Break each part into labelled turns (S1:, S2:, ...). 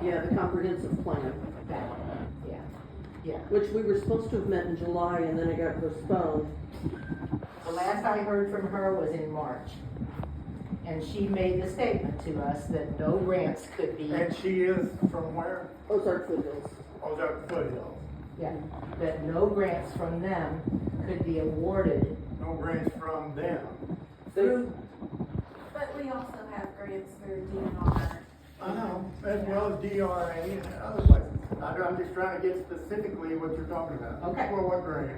S1: Yeah, the comprehensive plan,
S2: that one, yeah, yeah.
S1: which we were supposed to have met in July and then it got postponed.
S2: The last I heard from her was in March. And she made the statement to us that no grants could be,
S3: And she is from where? Oh,
S1: Ozark Foothills.
S3: Ozark Foothills.
S2: yeah, that no grants from them could be awarded.
S3: No grants from them.
S1: Through,
S4: But we also have grants through DNR.
S3: I know, as well as DRA and other places. I don't- I'm just trying to get specifically what you're talking about.
S2: Okay.
S3: For what grant?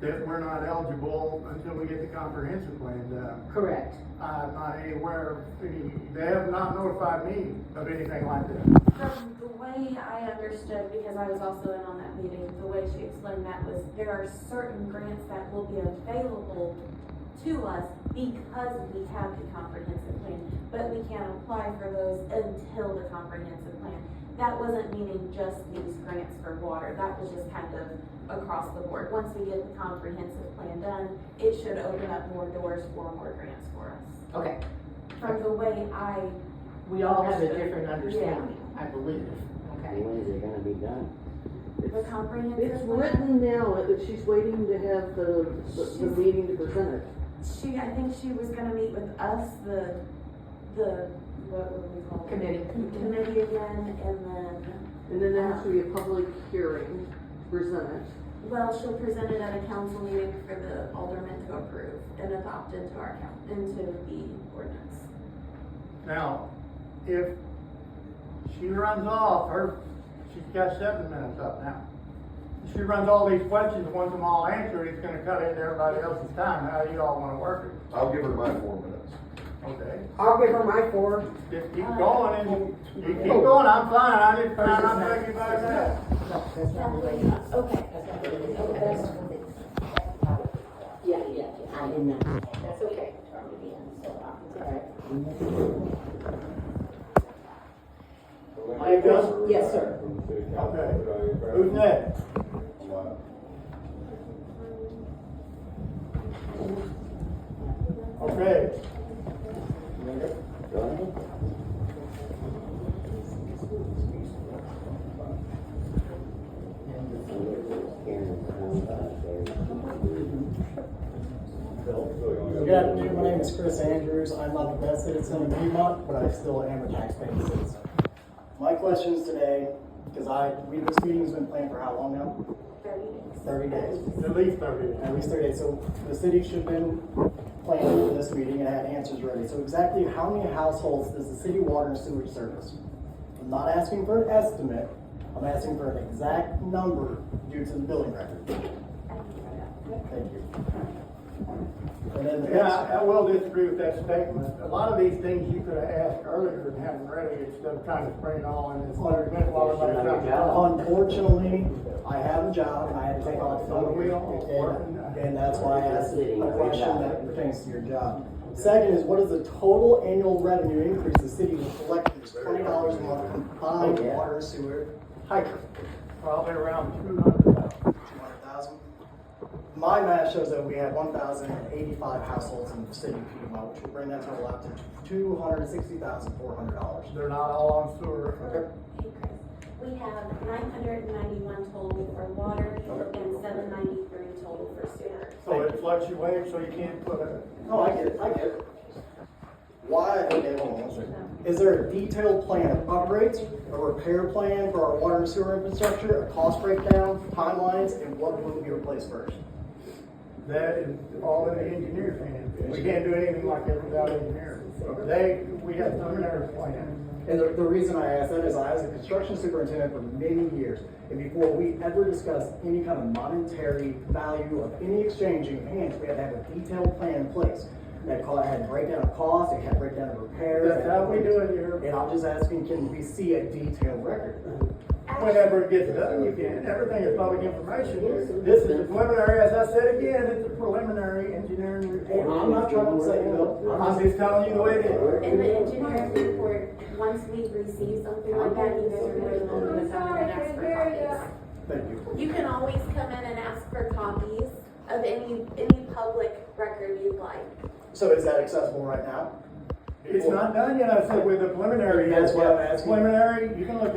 S3: That we're not eligible until we get the comprehensive plan done.
S2: Correct.
S3: I'm not aware of any, they have not notified me of anything like that.
S4: From the way I understood, because I was also in on that meeting, the way she explained that was there are certain grants that will be available to us because we have the comprehensive plan, but we can't apply for those until the comprehensive plan. That wasn't meaning just these grants for water, that was just kind of across the board. Once we get the comprehensive plan done, it should open up more doors for more grants for us.
S2: Okay,
S4: From the way I
S2: we all have a different understanding, I believe, okay?
S5: When is it gonna be done?
S4: The comprehensive.
S1: it's
S4: plan-
S1: written now that she's waiting to have the, the, the meeting to present it.
S4: She, I think she was gonna meet with us, the, the, what would we call it?
S2: Committee.
S4: Committee again, and then,
S1: And then there has to be a public hearing to present it.
S4: well, she'll present it at a council meeting for the aldermen to approve and adopt into our coun, into the ordinance.
S3: Now, if she runs off, her, she's got seven minutes up now. If She runs all these questions, wants them all answered, it's gonna cut into everybody else's time, how you all wanna work it,
S6: I'll give her my four minutes.
S3: okay?
S7: I'll give her my four.
S3: Just keep
S7: Uh,
S3: going and, you
S7: oh.
S3: keep going, I'm fine, I just found out thinking about that.
S7: No, that's not the way it is.
S4: Okay.
S7: That's not the way it is. That's what it is. Yeah, yeah, yeah, I didn't know. That's okay. uh,
S3: you go.
S7: Yes, sir.
S3: Okay. Who's next? Okay,
S8: Good afternoon, my name is Chris Andrews. I'm not the best citizen in Piedmont, but I still am a taxpaying citizen. My questions today, because I, we, this meeting's been planned for how long now?
S4: Thirty days.
S8: Thirty days.
S3: at least thirty.
S8: At least thirty days. So the city should have been planning for this meeting and had answers ready. So exactly how many households does the city water and sewage service? I'm not asking for an estimate. I'm asking for an exact number due to the billing record.
S4: I can try that.
S8: Thank you. And then the
S3: Yeah,
S8: next.
S3: I I will disagree with that statement. A lot of these things you could have asked earlier and haven't ready instead of trying to spring it all in this letter while everybody's trying to.
S8: Unfortunately, I have a job and I had to take off
S3: Are we all working?
S8: and, and that's why I asked a question that pertains to your job. Second is, what is the total annual revenue increase the city will collect from this twenty dollars a month combined water sewer hydrant?
S3: Probably around two hundred.
S8: Two hundred thousand? My math shows that we have one thousand and eighty-five households in the city of Piedmont, which would bring that total out to two hundred and sixty thousand, four hundred dollars.
S3: They're not all on sewer.
S4: Hey, Chris, we have nine hundred and ninety-one total for water and seven ninety-three total for sewer.
S3: So it fluctuates, so you can't put a,
S8: No, I get it, I get it. Why, okay, hold on one second. Is there a detailed plan of upgrades, a repair plan for our water and sewer infrastructure, a cost breakdown, timelines, and what will be replaced first?
S3: that is all in the engineer's hands. We can't do anything like that without engineers. They, we have some engineers plan.
S8: And the, the reason I ask that is I was a construction superintendent for many years, and before we ever discussed any kind of monetary value of any exchanging of hands, we had to have a detailed plan in place. That call, had breakdown of costs, it had breakdown of repairs.
S3: That's how we do it here. Mm-hmm.
S8: And I'm just asking, can we see a detailed record?
S3: Whenever it gets done, you can, everything is public information. This is the preliminary, as I said again, it's a preliminary engineering
S8: And
S3: report.
S8: I'm not trying to say, no,
S3: I'm just telling you the way it is.
S4: In the engineer's report, once we receive something like that, you guys are more than welcome to come in and ask for copies.
S8: thank you.
S4: You can always come in and ask for copies of any, any public record you'd like.
S8: So is that accessible right now?
S3: It's not done yet, I said, with the preliminary.
S8: That's what I'm asking.
S3: Preliminary, you can look